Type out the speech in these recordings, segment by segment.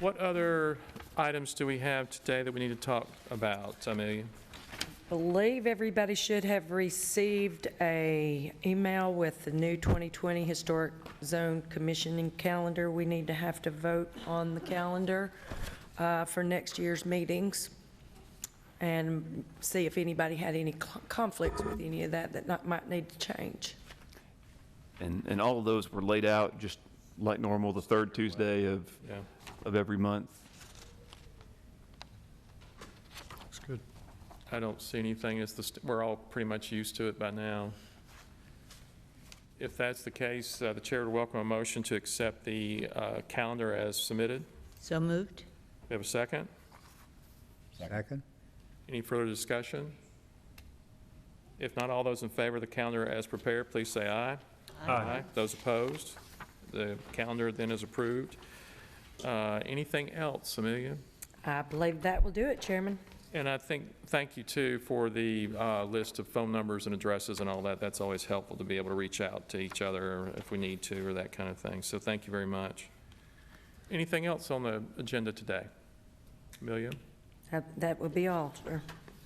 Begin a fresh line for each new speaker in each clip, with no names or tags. What other items do we have today that we need to talk about, Amelia?
Believe everybody should have received a email with the new 2020 Historic Zone Commissioning Calendar. We need to have to vote on the calendar uh, for next year's meetings and see if anybody had any cl- conflicts with any of that that not- might need to change.
And, and all of those were laid out just like normal, the third Tuesday of,
Yeah.
of every month.
Looks good.
I don't see anything, it's the, st- we're all pretty much used to it by now. If that's the case, uh, the chair would welcome a motion to accept the uh, calendar as submitted.
So moved?
Do we have a second?
Second?
Any further discussion? If not, all those in favor of the calendar as prepared, please say aye. Aye. Those opposed? The calendar then is approved. Uh, Anything else, Amelia?
I believe that will do it, Chairman.
And I think, thank you too for the uh, list of phone numbers and addresses and all that. That's always helpful to be able to reach out to each other if we need to or that kind of thing. So thank you very much. Anything else on the agenda today? Amelia?
That- That will be all, sir.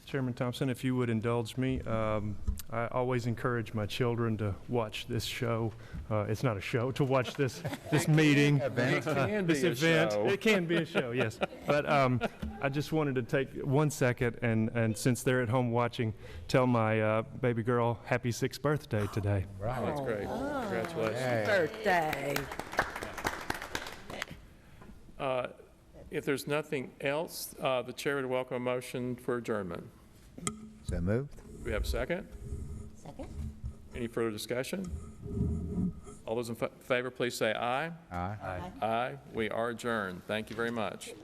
Chairman Thompson, if you would indulge me, um, I always encourage my children to watch this show. Uh, It's not a show, to watch this, this meeting. uh,
can
this
be a
event.
show.
It can be a show, yes. But um, I just wanted to take one second, and, and since they're at home watching, tell my uh, baby girl, happy sixth birthday today.
Oh, That's great. Congratulations.
Birthday.
Uh, If there's nothing else, uh, the chair would welcome a motion for adjournment.
So moved?
Do we have a second?
Second?
Any further discussion? All those in fa- favor, please say aye.
Aye.
Aye. We are adjourned. Thank you very much.